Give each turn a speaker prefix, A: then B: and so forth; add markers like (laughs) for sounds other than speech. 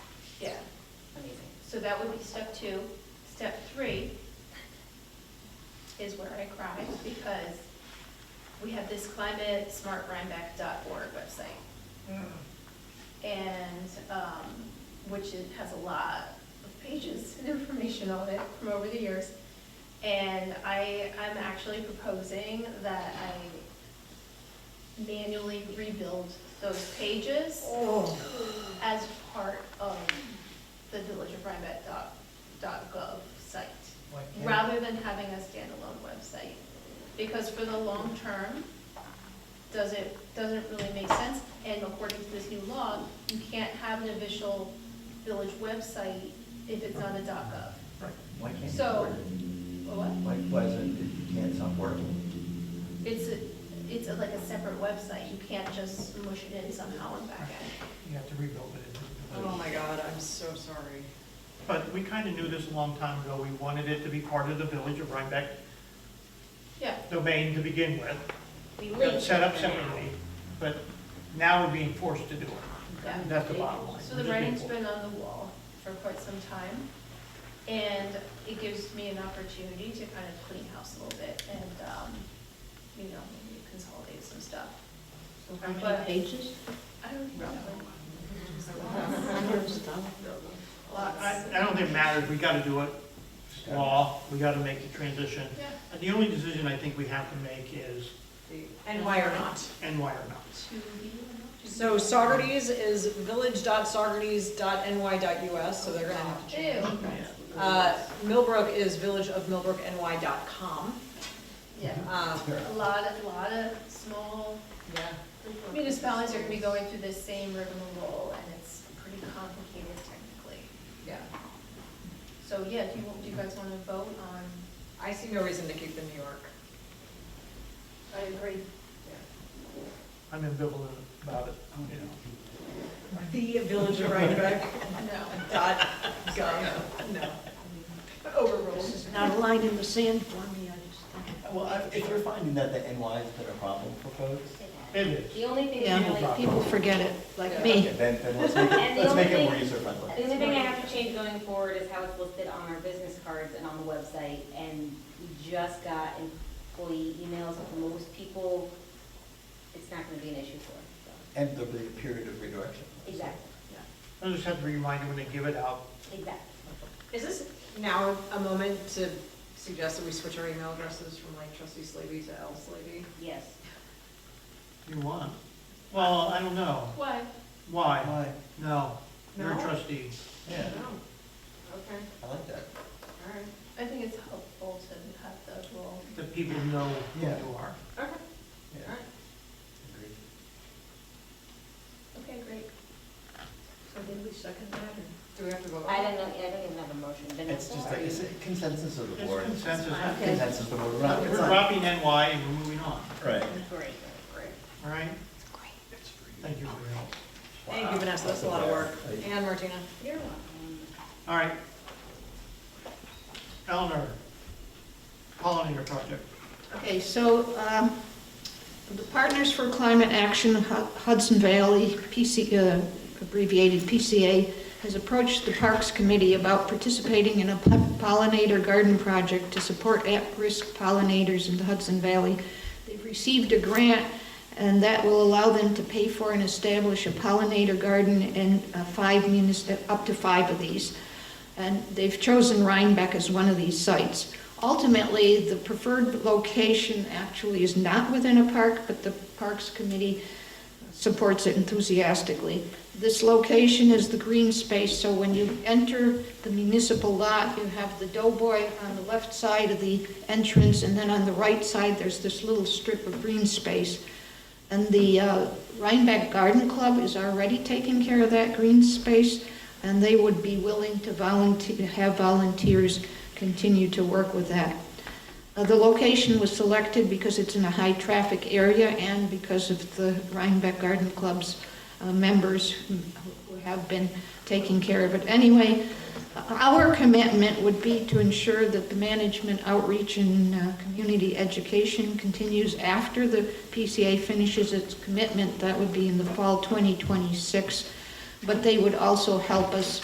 A: So that would be step two. Step three is where I cried because we have this climatesmartrhinebeck.org website. And, um, which it has a lot of pages and (laughs) information on it from over the years. And I, I'm actually proposing that I manually rebuild those pages
B: Oh,
A: as part of the village of Rhinebeck dot, dot gov site,
B: Why can't-
A: rather than having a standalone website. Because for the long term, does it, doesn't really make sense, and according to this new law, you can't have an official village website if it's not a dot gov.
C: Right, why can't it
A: So-
C: work?
A: What?
C: Why, why is it, it can't stop working?
A: It's, a- it's a- like a separate website, you can't just mush it in somehow and back end.
B: You have to rebuild it.
D: Oh my God, I'm so sorry.
E: But we kind of knew this a long time ago. We wanted it to be part of the Village of Rhinebeck
A: Yeah,
E: domain to begin with,
F: We
E: set up separately, but now we're being forced to do it.
A: yeah.
E: That's the bottom line.
A: So the writing's been on the wall for quite some time, and it gives me an opportunity to kind of clean house a little bit and, um, you know, maybe consolidate some stuff.
F: How
A: But-
F: many pages?
A: I don't know,
F: Hundred stuff.
E: I,
A: lots.
E: I don't think it matters. We got to do it. It's
C: Yeah.
E: Law, we got to make the transition.
A: Yeah,
E: And the only decision I think we have to make is,
D: And why or not?
E: and why or not?
A: to be.
D: So Saugerties is village.saugerties.ny.us, so they're gonna have to change.
A: Ew,
D: Uh, Millbrook is villageofmillbrookny.com.
A: yeah,
D: Um,
A: a lot, a lot of small municipalities are gonna be going through this same rigmarole, and it's pretty complicated technically.
D: Yeah,
A: So, yeah, do you, do you guys wanna vote on?
D: I see no reason to keep the New York.
A: I agree.
E: I'm ambivalent about it, you know.
D: The Village of Rhinebeck
A: No.
D: dot gov, no. Overruled.
F: Not a line in the sand for me, I just think.
C: Well, I- if you're finding that the NY is a problem for folks,
E: It is.
G: The only thing, that
F: Yeah,
G: really-
F: people forget it, like
C: okay,
F: me.
C: then, then let's make it,
G: (laughs) And the
C: let's make
G: only
C: it more
G: thing-
C: user friendly.
G: the only thing I have to change going forward is how it's listed on our business cards and on the website. And we just got employee emails with most people. It's not gonna be an issue for us, so.
C: And there'll be a period of redirection.
G: Exactly,
E: I just have to remind you when they give it out,
G: exactly.
D: Is this now a moment to suggest that we switch our email addresses from like trustee Slavy to L Slavy?
G: Yes.
E: you want. Well, I don't know.
A: Why?
E: Why?
C: Why?
E: No, you're a
D: No?
E: trustee.
C: Yeah,
D: Okay,
C: I like that.
D: all right,
A: I think it's helpful to have the role.
E: The people know who
C: Yeah.
E: you are.
D: okay, all
C: Yeah,
D: right.
C: agreed.
A: Okay, great.
F: So did we second that
D: Do we have to vote?
G: I don't know, I don't even have a motion.
C: It's
G: Vanessa,
C: just
G: are
C: like, it's a
G: you-
C: consensus of the
E: It's
C: board.
E: consensus.
F: Okay.
C: Consensus of the board, we're not,
E: We're dropping NY and we're moving on,
C: right.
G: Great.
E: all right?
F: Great.
E: Thank you for your help.
D: Thank you, Vanessa, that's a lot of work. And Martina?
G: You're welcome.
E: All right. Eleanor, pollinator project.
F: Okay, so um, the Partners for Climate Action Hu- Hudson Valley, PC uh, abbreviated PCA, has approached the Parks Committee about participating in a po- pollinator garden project to support at-risk pollinators in the Hudson Valley. They've received a grant, and that will allow them to pay for and establish a pollinator garden in uh, five munis, up to five of these and they've chosen Rhinebeck as one of these sites. Ultimately, the preferred location actually is not within a park, but the Parks Committee supports it enthusiastically. This location is the green space, so when you enter the municipal lot, you have the Doughboy on the left side of the entrance, and then on the right side, there's this little strip of green space. And the uh, Rhinebeck Garden Club is already taking care of that green space, and they would be willing to volunteer, have volunteers continue to work with that. Uh, The location was selected because it's in a high-traffic area and because of the Rhinebeck Garden Club's uh, members who who have been taking care of it. Anyway, our commitment would be to ensure that the management outreach and uh, community education continues after the PCA finishes its commitment. That would be in the fall 2026. But they would also help us